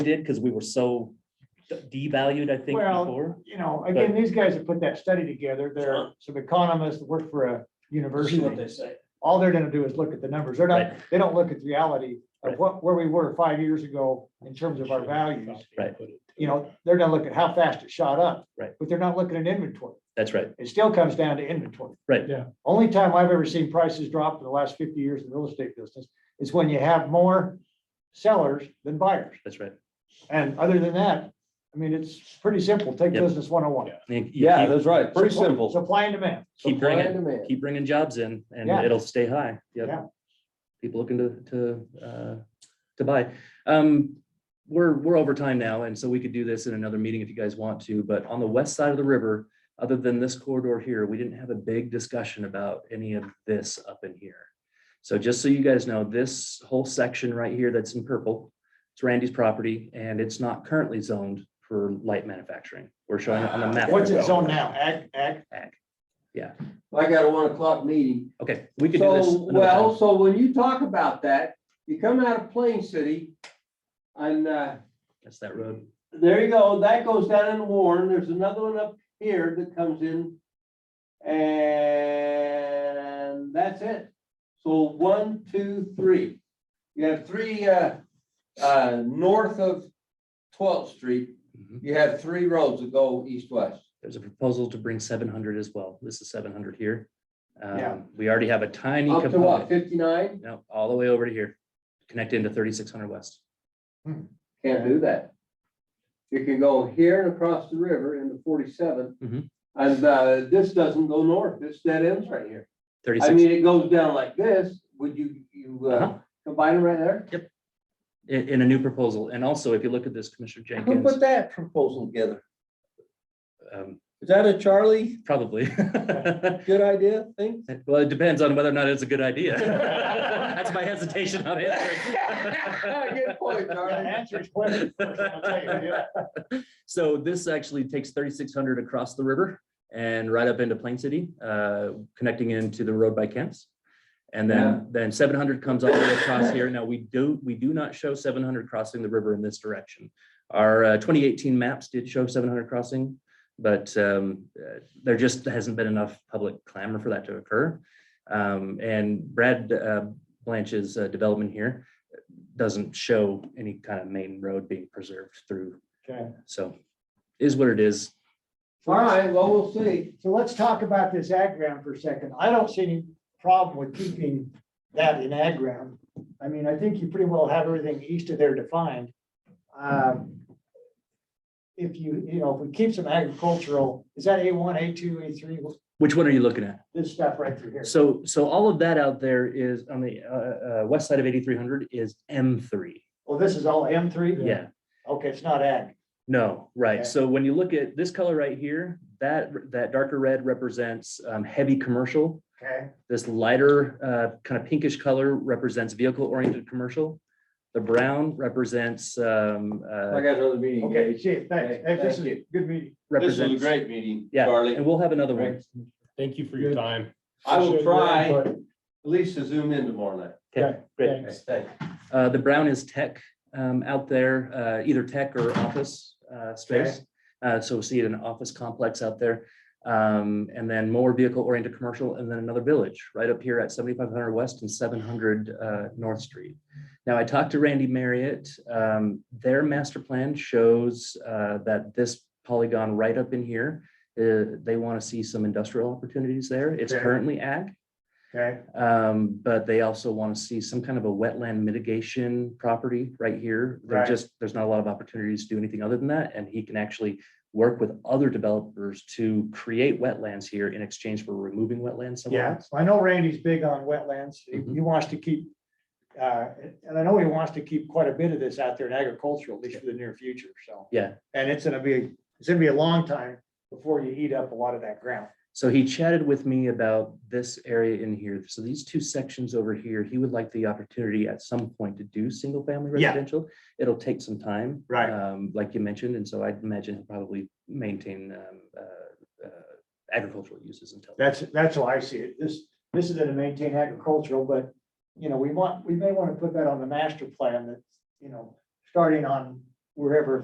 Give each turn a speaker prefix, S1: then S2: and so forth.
S1: did because we were so d- devalued, I think,
S2: Well,
S1: before.
S2: you know, again, these guys have put that study together. They're some economists that work for a
S3: See what they
S2: university.
S3: say.
S2: All they're gonna do is look at the numbers. They're not, they don't look at the reality of
S1: Right.
S2: what, where we were five years ago in terms of our values.
S1: Right.
S2: You know, they're gonna look at how fast it shot up.
S1: Right.
S2: But they're not looking at inventory.
S1: That's right.
S2: It still comes down to inventory.
S1: Right.
S4: Yeah.
S2: Only time I've ever seen prices drop in the last fifty years in the real estate business is when you have more sellers than buyers.
S1: That's right.
S2: And other than that, I mean, it's pretty simple. Take
S1: Yep.
S2: business one oh one.
S3: Yeah.
S1: You- you
S4: Yeah,
S1: keep-
S4: that's right. Pretty
S2: Supply-
S4: simple.
S2: Supply and demand.
S1: Keep
S4: Supply
S1: bringing-
S4: and demand.
S1: Keep bringing jobs in and
S2: Yeah.
S1: it'll stay high. Yep.
S2: Yeah.
S1: People looking to, to, uh, to buy. Um, we're, we're over time now, and so we could do this in another meeting if you guys want to, but on the west side of the river, other than this corridor here, we didn't have a big discussion about any of this up in here. So just so you guys know, this whole section right here that's in purple, it's Randy's property, and it's not currently zoned for light manufacturing. We're showing it on the map.
S2: What's it zoned now? Ag, ag?
S5: I got a one o'clock meeting.
S1: Okay, we could do this.
S5: So,
S1: another time.
S5: well, so when you talk about that, you come out of Plain City and, uh,
S1: That's that road.
S5: there you go. That goes down in Warren. There's another one up here that comes in. And that's it. So one, two, three. You have three, uh, uh, north of twelfth street,
S1: Mhm.
S5: you have three roads that go east-west.
S1: There's a proposal to bring seven hundred as well. This is seven hundred here.
S2: Yeah.
S1: Um, we already have a tiny
S5: Up to what,
S1: component.
S5: fifty-nine?
S1: No, all the way over to here, connect into thirty-six hundred west.
S5: Can't do that. You can go here and across the river into
S1: Mhm.
S5: forty-seven. And uh, this doesn't go north, this dead ends right here. I mean,
S1: Thirty-six,
S5: it goes down like this, would you, you uh,
S1: Uh-huh.
S5: combine them right there?
S1: in, in a new proposal. And also, if you look at this, Commissioner
S3: Who
S1: Jenkins,
S3: put that proposal together?
S1: um,
S3: Is that a Charlie,
S1: probably.
S3: good idea thing?
S1: Well, it depends on whether or not it's a good idea. That's my hesitation on answering.
S5: Good point,
S2: Yeah,
S5: Darrell.
S2: Answer his question first, I'll tell you, yeah.
S1: So this actually takes thirty-six hundred across the river and right up into Plain City, uh, connecting into the road by Kent's. And
S5: Yeah.
S1: then, then seven hundred comes all the way across here. Now, we do, we do not show seven hundred crossing the river in this direction. Our uh, twenty eighteen maps did show seven hundred crossing, but um, uh, there just hasn't been enough public clamor for that to occur. Um, And Brad uh, Blanch's uh, development here doesn't show any kind of main road being preserved through
S2: Okay.
S1: so is what it is.
S5: All right, well, we'll see.
S2: So let's talk about this ag ground for a second. I don't see any problem with keeping that in ag ground. I mean, I think you pretty well have everything east of there defined. Um, If you, you know, if we keep some agricultural, is that A one, A two, A three,
S1: Which one are you looking at?
S2: this stuff right through here?
S1: So, so all of that out there is on the uh, uh, west side of 8300 is M3.
S2: Well, this is all M three?
S1: Yeah,
S2: Okay, it's not ag.
S1: no,
S2: Okay.
S1: right. So when you look at this color right here, that, that darker red represents um, heavy commercial.
S2: Okay.
S1: This lighter uh, kind of pinkish color represents vehicle oriented commercial. The brown represents, um,
S5: I
S1: uh,
S5: got another meeting.
S2: Okay, chief, thanks. Hey, this is a good meeting.
S5: This was a
S1: represents,
S5: great meeting,
S1: Yeah,
S5: Charlie.
S1: and we'll have another one.
S4: Thank you for your
S3: Good.
S4: time.
S5: I will
S4: Appreciate your
S5: try at
S4: input.
S5: least to zoom in tomorrow night.
S1: Okay, great.
S4: Thanks.
S5: Thanks.
S1: Uh, the brown is tech, um, out there, uh, either tech or office, uh, space. Uh, so we see it in an office complex out there. Um, and then more vehicle oriented commercial and then another village right up here at seventy-five hundred west and seven hundred, uh, North Street. Now, I talked to Randy Marriott, um, their master plan shows, uh, that this polygon right up in here, uh, they want to see some industrial opportunities there. It's
S2: Okay.
S1: currently ag.
S2: Okay.
S1: Um, but they also want to see some kind of a wetland mitigation property right here. They're
S2: Right.
S1: just, there's not a lot of opportunities to do anything other than that, and he can actually work with other developers to create wetlands here in exchange for removing wetlands somewhere
S2: Yeah,
S1: else.
S2: I know Randy's big on wetlands. He
S1: Mhm.
S2: he wants to keep, uh, and I know he wants to keep quite a bit of this out there in agricultural, at least for the near future, so.
S1: Yeah.
S2: And it's gonna be, it's gonna be a long time before you eat up a lot of that ground.
S1: So he chatted with me about this area in here. So these two sections over here, he would like the opportunity at some point to do single family
S2: Yeah.
S1: residential. It'll take some time.
S2: Right.
S1: Um, like you mentioned, and so I imagine he'll probably maintain, um, uh, uh, agricultural uses until.
S2: That's, that's how I see it. This, this is gonna maintain agricultural, but, you know, we want, we may wanna put that on the master plan that, you know, starting on wherever